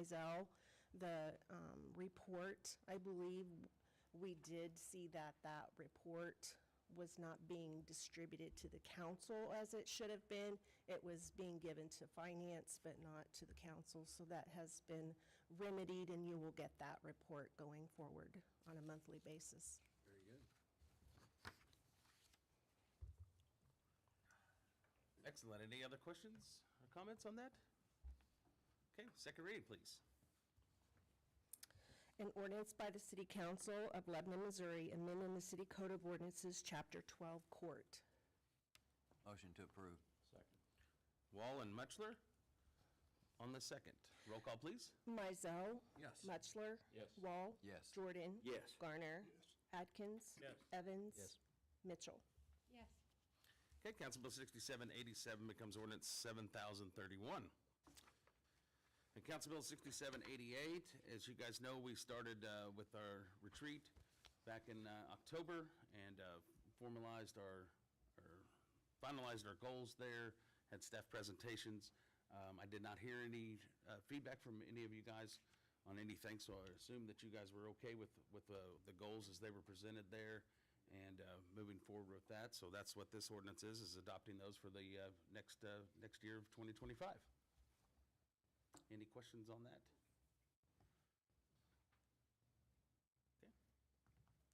Mizell, the um, report, I believe, we did see that that report was not being distributed to the council as it should have been. It was being given to finance, but not to the council. So that has been remedied, and you will get that report going forward on a monthly basis. Very good. Excellent. Any other questions or comments on that? Okay, second reading, please. An ordinance by the City Council of Lebanon, Missouri, amending the City Code of Ordinances, Chapter 12, Court. Motion to approve. Wall and Mutchler on the second. Roll call, please. Mizell. Yes. Mutchler. Yes. Wall. Yes. Jordan. Yes. Garner. Atkins. Yes. Evans. Yes. Mitchell. Yes. Okay, Council Bill 6787 becomes ordinance 7031. And Council Bill 6788, as you guys know, we started uh, with our retreat back in uh, October and uh, formalized our, or finalized our goals there, had staff presentations. Um, I did not hear any uh, feedback from any of you guys on anything, so I assume that you guys were okay with, with uh, the goals as they were presented there and uh, moving forward with that. So that's what this ordinance is, is adopting those for the uh, next, uh, next year of 2025. Any questions on that? Okay.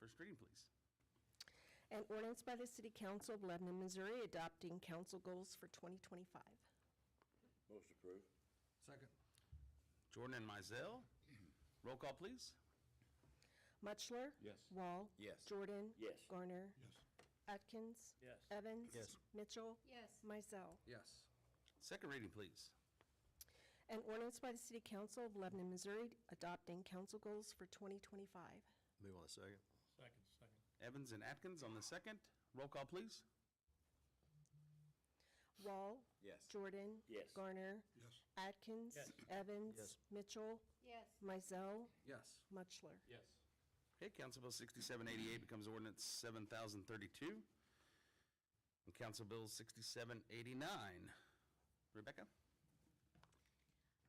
First reading, please. An ordinance by the City Council of Lebanon, Missouri, adopting council goals for 2025. Most approved. Second. Jordan and Mizell, roll call, please. Mutchler. Yes. Wall. Yes. Jordan. Yes. Garner. Yes. Atkins. Yes. Evans. Yes. Mitchell. Yes. Mizell. Yes. Second reading, please. An ordinance by the City Council of Lebanon, Missouri, adopting council goals for 2025. Move on the second. Second, second. Evans and Atkins on the second, roll call, please. Wall. Yes. Jordan. Yes. Garner. Yes. Atkins. Yes. Evans. Yes. Mitchell. Yes. Mizell. Yes. Muchler. Yes. Okay, Council Bill 6788 becomes ordinance 7032. And Council Bill 6789. Rebecca?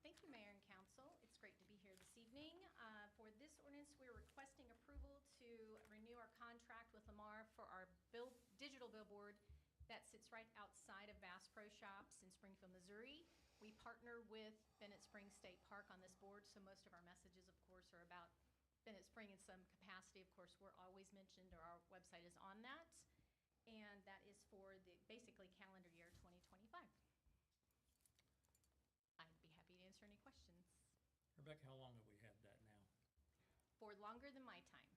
Thank you, Mayor and Council. It's great to be here this evening. Uh, For this ordinance, we're requesting approval to renew our contract with Lamar for our bill- digital billboard that sits right outside of Bass Pro Shops in Springfield, Missouri. We partner with Bennett Springs State Park on this board, so most of our messages, of course, are about Bennett Spring in some capacity. Of course, we're always mentioned, or our website is on that. And that is for the, basically calendar year 2025. I'd be happy to answer any questions. Rebecca, how long have we had that now? For longer than my time.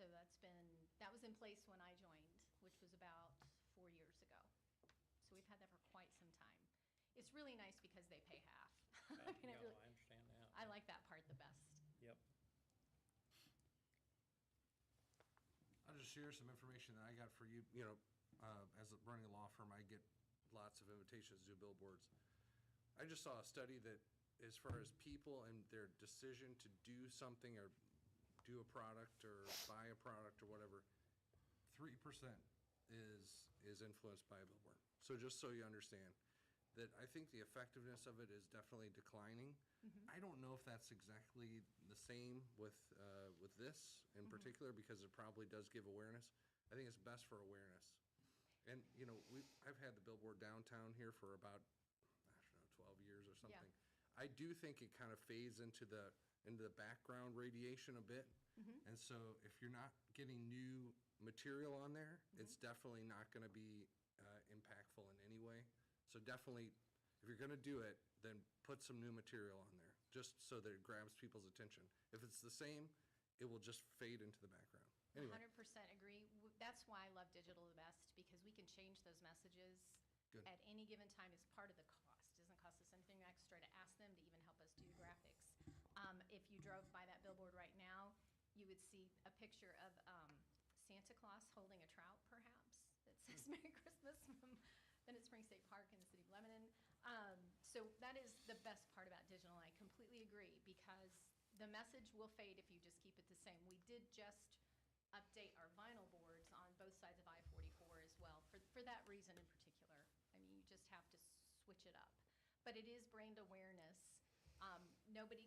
So that's been, that was in place when I joined, which was about four years ago. So we've had that for quite some time. It's really nice because they pay half. I mean, I Yeah, really- I understand that. I like that part the best. Yep. I'll just share some information that I got for you, you know, uh, as a running a law firm, I get lots of invitations to do billboards. I just saw a study that as far as people and their decision to do something or do a product or buy a product or whatever, three percent is, is influenced by a billboard. So just so you understand, that I think the effectiveness of it is definitely declining. I don't know if that's exactly the same with, uh, with this in particular, because it probably does give awareness. I think it's best for awareness. And, you know, we, I've had the billboard downtown here for about, I don't know, twelve years or something. I do think it kind of fades into the, into the background radiation a bit. And so if you're not getting new material on there, it's definitely not gonna be, uh, impactful in any way. So definitely, if you're gonna do it, then put some new material on there, just so that it grabs people's attention. If it's the same, it will just fade into the background. Anyway, Hundred percent agree. W- That's why I love digital the best, because we can change those messages Good. at any given time. It's part of the cost. Doesn't cost us anything extra to ask them to even help us do graphics. Um, if you drove by that billboard right now, you would see a picture of, um, Santa Claus holding a trout perhaps that says Hmm. Merry Christmas from Bennett Springs State Park in the city of Lebanon. Um, so that is the best part about digital. and I completely agree because the message will fade if you just keep it the same. We did just update our vinyl boards on both sides of I-44 as well, for, for that reason in particular. I mean, you just have to switch it up. But it is brand awareness. Um, Nobody